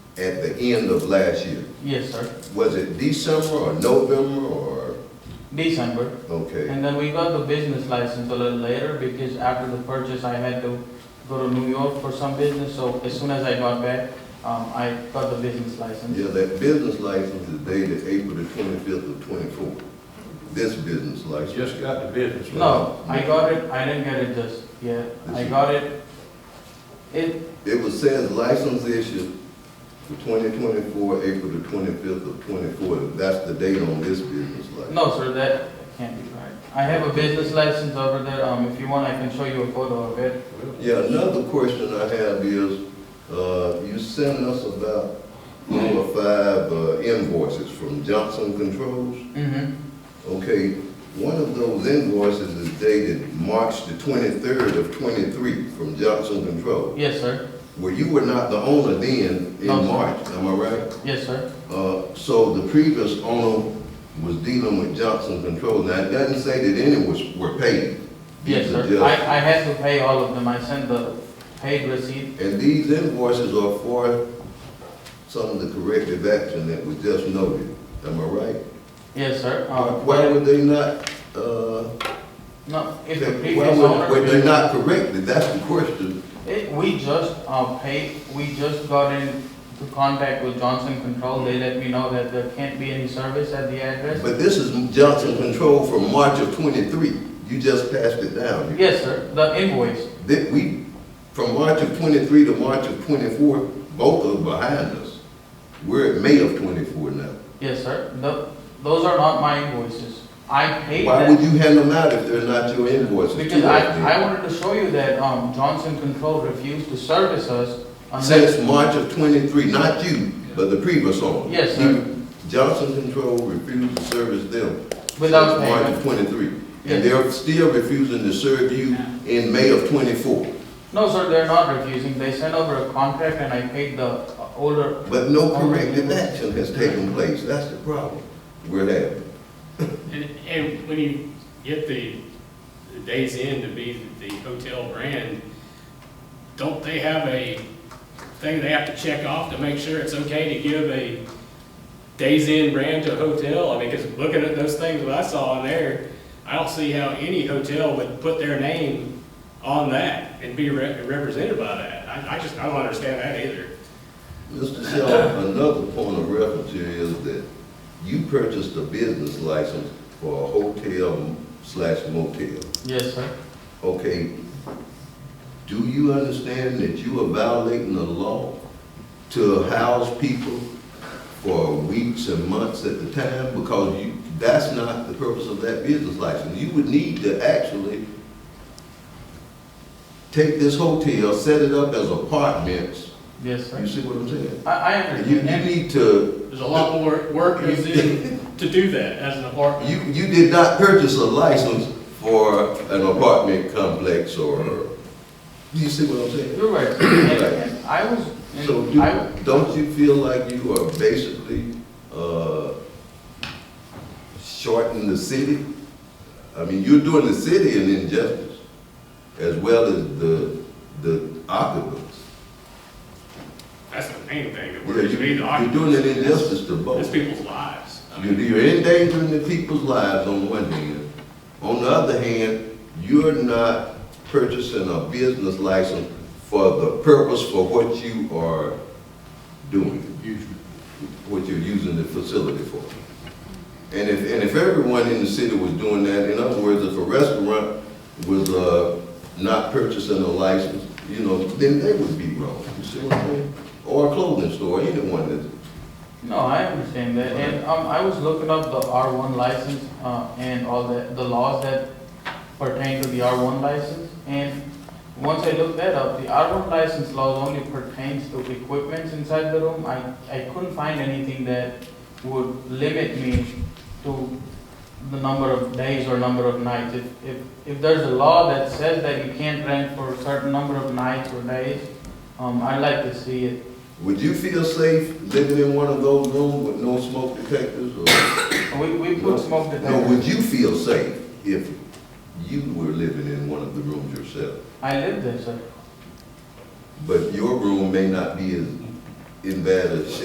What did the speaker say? at the end of last year? Yes, sir. Was it December or November or, December. okay, And then we got the business license a little later because after the purchase, I had to go to New York for some business. So as soon as I got back, um, I got the business license. yeah, that business license is dated April the twenty-fifth of twenty-four. This business license. Just got the business. No, I got it, I didn't get it just yet. I got it. It, It was says license issued for twenty twenty-four, April the twenty-fifth of twenty-four. That's the date on this business license. no, sir, that can't be right. I have a business license over there. Um, if you want, I can show you a photo of it. Yeah, another question I have is, uh, you sent us about four or five uh, invoices from Johnson Controls. Mm-hmm. Okay, one of those invoices is dated March the twenty-third of twenty-three from Johnson Controls. Yes, sir. Well, you were not the owner then in No, sir. March, am I right? Yes, sir. Uh, so the previous owner was dealing with Johnson Controls. Now, it doesn't say that any was, were paid. Yes, These are sir. just- I, I had to pay all of them. I sent the paid receipt And these invoices are for some of the corrective action that was just noted, am I right? Yes, sir. Uh, Why would they not, uh, No, if the why previous would, were they owner, not corrected? That's the question. it, we just, uh, paid, we just got in to contact with Johnson Control. They let me know that there can't be any service at the address. But this is Johnson Control from March of twenty-three. You just passed it down. Yes, sir, the invoice. That we, from March of twenty-three to March of twenty-four, both are behind us. We're at May of twenty-four now. Yes, sir. The, those are not my invoices. I paid Why would them. you hand them out if they're not your invoices? Because to I, us then? I wanted to show you that, um, Johnson Control refused to service us unless, Since March of twenty-three, not you, but the previous owner. Yes, sir. He- Johnson Control refused to service them. without since March of payment. twenty-three. Yes. And they're still refusing to serve you in May of twenty-four. No, sir, they're not refusing. They sent over a contract and I paid the uh, older But no corrective action has taken place. That's the problem we're having. And, and when you get the, the Days Inn to be the hotel brand, don't they have a thing they have to check off to make sure it's okay to give a Days Inn brand to a hotel? I mean, because looking at those things that I saw in there, I don't see how any hotel would put their name on that and be re- represented by that. I, I just, I don't understand that either. Mr. Shaw, another point of reference here is that you purchased a business license for a hotel slash motel. Yes, sir. Okay, do you understand that you are violating the law to house people for weeks and months at the time? Because you, that's not the purpose of that business license. You would need to actually take this hotel, set it up as apartments. Yes, sir. You see what I'm saying? I, I And You, understand. you And- need to, There's a lot more work goes in to do that as an apartment. you, you did not purchase a license for an apartment complex or, you see what I'm saying? You're right. And- and I was, So and you, I, don't you feel like you are basically, uh, shorting the city? I mean, you're doing the city an injustice as well as the, the occupants. That's the main thing, that You're we're, we the you're doing an injustice to It's both. people's lives. I You're mean, you're endangering the people's lives on one hand. On the other hand, you're not purchasing a business license for the purpose for what you are doing. what you're using the facility for. And if, and if everyone in the city was doing that, in other words, if a restaurant was, uh, not purchasing a license, you know, then they would be wrong, you see what I'm saying? Or a clothing store, anyone that, no, I understand that. And, um, I was looking up the R one license, uh, and all the, the laws that pertain to the R one license. And once I looked that up, the R one license laws only pertains to equipments inside the room. I, I couldn't find anything that would limit me to the number of days or number of nights. If, if, if there's a law that says that you can't rent for a certain number of nights or days, um, I'd like to see it. would you feel safe living in one of those rooms with no smoke detectors or? We, we put smoke No, would detectors. you feel safe if you were living in one of the rooms yourself? I live there, sir. But your room may not be as in bad as